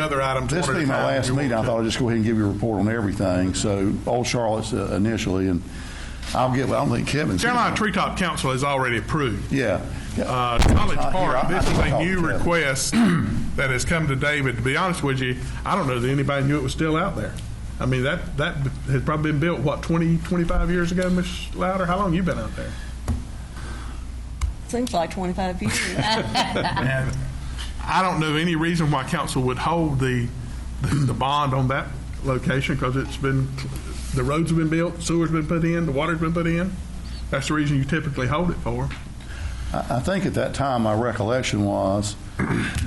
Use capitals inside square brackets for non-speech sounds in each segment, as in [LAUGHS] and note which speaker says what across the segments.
Speaker 1: Other items.
Speaker 2: This
Speaker 1: one at a
Speaker 2: being my
Speaker 1: time.
Speaker 2: last
Speaker 1: You
Speaker 2: meeting, I
Speaker 1: want to-
Speaker 2: thought I'd just go ahead and give you a report on everything. So, Old Charlotte's uh, initially, and I'll get, I don't think Kevin's.
Speaker 1: Carolina Treetop Council has already approved.
Speaker 2: Yeah.
Speaker 1: Uh, College Park, this is a new
Speaker 2: [CLEARS THROAT]
Speaker 1: request that has come to David. To be honest with you, I don't know that anybody knew it was still out there. I mean, that, that had probably been built, what, 20, 25 years ago, Ms. Louder? How long you been out there?
Speaker 3: Seems like 25 years.
Speaker 1: And I don't know any reason why council would hold the, the bond on that location, because it's been, the roads have been built, sewer's been put in, the water's been put in. That's the reason you typically hold it for.
Speaker 2: I I think at that time, my recollection was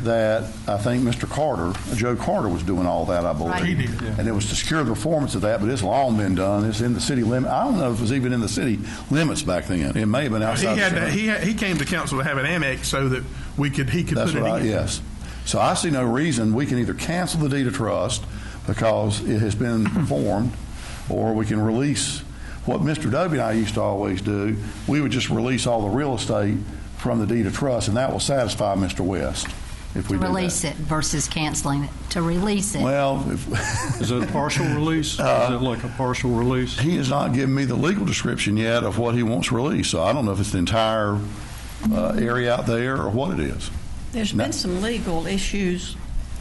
Speaker 2: that I think Mr. Carter, Joe Carter was doing all that, I believe.
Speaker 1: Right. He did, yeah.
Speaker 2: And it was to secure the performance of that, but it's long been done. It's in the city limit. I don't know if it was even in the city limits back then. It may have been
Speaker 1: He
Speaker 2: outside. the
Speaker 1: had,
Speaker 2: city
Speaker 1: to-
Speaker 2: limits.
Speaker 1: he, had- he came to council to have it annexed so that we could, he could
Speaker 2: That's
Speaker 1: put it
Speaker 2: what I,
Speaker 1: in.
Speaker 2: yes. So I see no reason, we can either cancel the deed of trust because it has
Speaker 1: [CLEARS THROAT]
Speaker 2: been performed, or we can release, what Mr. Dovey and I used to always do, we would just release all the real estate from the deed of trust, and that will satisfy Mr. West if we
Speaker 4: To
Speaker 2: do that.
Speaker 4: release it versus canceling it, to release it.
Speaker 2: Well, if- [LAUGHS]
Speaker 5: Is it a partial release? Is it like a partial release?
Speaker 2: he has not given me the legal description yet of what he wants released, so I don't know if it's the entire uh, area out there or what it is.
Speaker 3: [LAUGHS] There's
Speaker 2: No.
Speaker 3: been some legal issues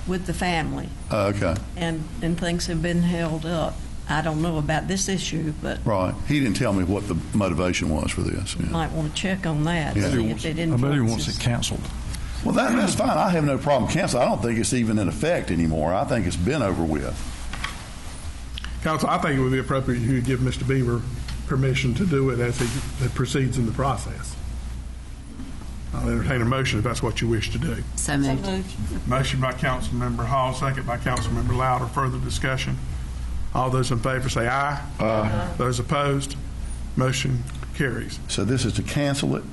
Speaker 3: with the family,
Speaker 2: Uh, Okay,
Speaker 3: and, and things have been held up. I don't know about this issue, but
Speaker 2: right. He didn't tell me what the motivation was for this. yeah.
Speaker 3: might want to check on that,
Speaker 2: Yeah.
Speaker 3: see if it
Speaker 5: I bet he wants
Speaker 3: influences.
Speaker 5: it canceled.
Speaker 2: Well, that, that's fine. I have no problem canceling. I don't think it's even in effect anymore. I think it's been over with.
Speaker 1: Council, I think it would be appropriate you give Mr. Beaver permission to do it as he proceeds in the process. I'll entertain a motion if that's what you wish to do.
Speaker 4: So moved.
Speaker 1: Motion by Councilmember Hall, second by Councilmember Louder. Further discussion? All those in favor say aye. Aye. Those opposed, motion carries.
Speaker 2: So this is to cancel it.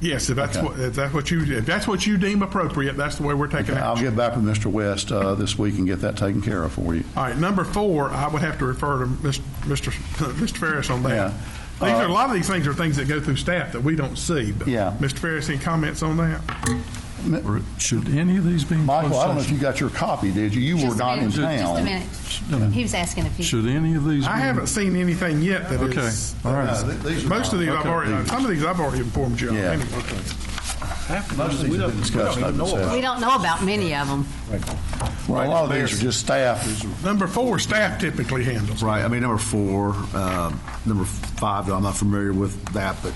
Speaker 1: Yes, if that's
Speaker 2: Okay.
Speaker 1: what, if that's what you, if that's what you deem appropriate, that's the way we're taking
Speaker 2: I'll
Speaker 1: action.
Speaker 2: get back with Mr. West uh, this week and get that taken care of for you.
Speaker 1: All right, number four, I would have to refer to Mr. [LAUGHS] Mr. Mr. Ferris on that.
Speaker 2: Yeah. Uh,
Speaker 1: These are, a lot of these things are things that go through staff that we don't see. but-
Speaker 2: Yeah.
Speaker 1: Mr. Ferris, any comments on that?
Speaker 5: Or Should any of these be in closed
Speaker 2: Michael, I don't know if
Speaker 5: session?
Speaker 2: you got your copy, did you? You were
Speaker 4: Just a
Speaker 2: not in
Speaker 4: minute, Just a
Speaker 2: town.
Speaker 4: minute. He was asking if you,
Speaker 5: Should any of these?
Speaker 1: I
Speaker 5: be-
Speaker 1: haven't seen anything yet that
Speaker 5: Okay,
Speaker 1: is.
Speaker 5: all
Speaker 2: No,
Speaker 5: right.
Speaker 2: th- these are
Speaker 1: Most of
Speaker 2: not-
Speaker 1: these I've
Speaker 2: okay.
Speaker 1: already, some of these I've already informed you on.
Speaker 2: Yeah.
Speaker 1: anyway.
Speaker 2: Most of these have been discussed. open
Speaker 4: we
Speaker 2: session.
Speaker 4: don't know about many of them.
Speaker 2: Well, a lot of these are just staff.
Speaker 1: Number four, staff typically handles.
Speaker 6: Right, I mean, number four, um, number five, though, I'm not familiar with that, but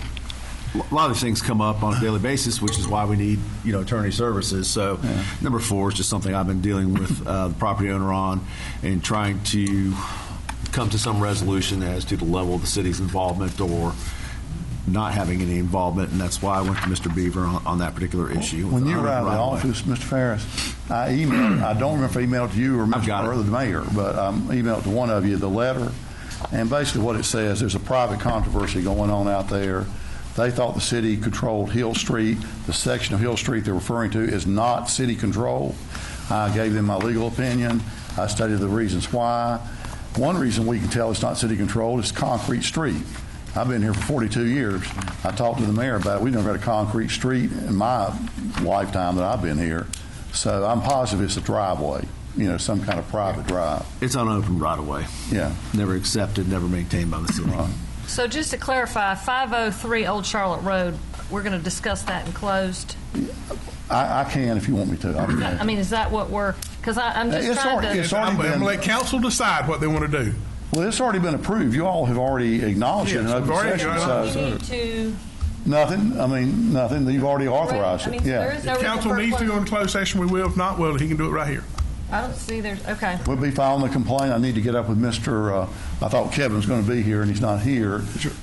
Speaker 6: a lot of these things come up on a daily basis, which is why we need, you know, attorney services. So number four is just something I've been dealing with uh, the property owner on and trying to come to some resolution as to the level of the city's involvement or not having any involvement, and that's why I went to Mr. Beaver on on that particular issue. with
Speaker 2: When
Speaker 6: the
Speaker 2: you
Speaker 6: owner
Speaker 2: were out of the
Speaker 6: right-of-way.
Speaker 2: office, Mr. Ferris, I emailed, I don't remember if I emailed you or
Speaker 6: I've got
Speaker 2: Mr.
Speaker 6: it.
Speaker 2: or the mayor, but I emailed to one of you the letter. And basically what it says, there's a private controversy going on out there. They thought the city controlled Hill Street. The section of Hill Street they're referring to is not city control. I gave them my legal opinion. I stated the reasons why. One reason we can tell it's not city control is concrete street. I've been here for 42 years. I talked to the mayor about it. We've never had a concrete street in my lifetime that I've been here. So I'm positive it's a driveway, you know, some kind of private drive.
Speaker 6: It's unopened right-of-way.
Speaker 2: Yeah.
Speaker 6: Never accepted, never maintained by the city.
Speaker 7: So just to clarify, 503 Old Charlotte Road, we're going to discuss that in closed?
Speaker 2: I, I can if you want me to. I can.
Speaker 7: I mean, is that what we're, because I'm just
Speaker 2: It's
Speaker 7: trying
Speaker 2: already-
Speaker 7: to...
Speaker 2: it's
Speaker 1: I'm
Speaker 2: already
Speaker 1: going
Speaker 2: been-
Speaker 1: to let council decide what they want to do.
Speaker 2: Well, it's already been approved. You all have already acknowledged it in
Speaker 1: Yes, we've
Speaker 2: open
Speaker 1: already
Speaker 2: session.
Speaker 1: acknowledged
Speaker 2: So
Speaker 7: to...
Speaker 2: nothing, I mean, nothing. You've already authorized
Speaker 7: I mean,
Speaker 2: it.
Speaker 7: so there is
Speaker 2: Yeah.
Speaker 7: no reason
Speaker 1: Council
Speaker 7: for a
Speaker 1: needs to go in
Speaker 7: closed-
Speaker 1: closed session, we will. If not, well, he can do it right here.
Speaker 7: I don't see there's, okay.
Speaker 2: We'll be filing the complaint. I need to get up with Mr., uh, I thought Kevin's going to be here and he's not here.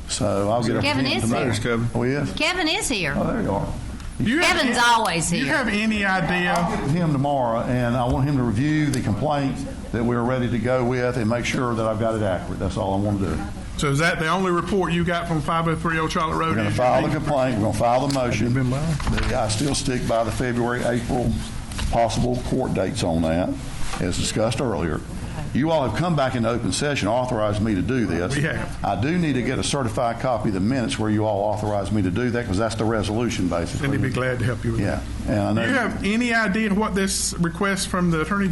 Speaker 2: So I'll get up with him
Speaker 4: Kevin is
Speaker 2: tomorrow.
Speaker 4: here.
Speaker 2: Oh, he is?
Speaker 4: Kevin is here.
Speaker 2: Oh, there you are.
Speaker 1: Do you have
Speaker 4: Kevin's
Speaker 1: any-
Speaker 4: always
Speaker 1: do you
Speaker 4: here.
Speaker 1: have any idea?
Speaker 2: with him tomorrow, and I want him to review the complaint that we're ready to go with and make sure that I've got it accurate. That's all I want to do.
Speaker 1: So is that the only report you got from 503 Old Charlotte Road?
Speaker 2: We're going to file the complaint, we're going to file the motion. I still stick by the February, April possible court dates on that, as discussed earlier. You all have come back into open session, authorized me to do this.
Speaker 1: We have.
Speaker 2: I do need to get a certified copy of the minutes where you all authorized me to do that, because that's the resolution, basically.
Speaker 1: And he'd be glad to help you with
Speaker 2: Yeah,
Speaker 1: that.
Speaker 2: and I know.
Speaker 1: Do you have any idea what this request from the Attorney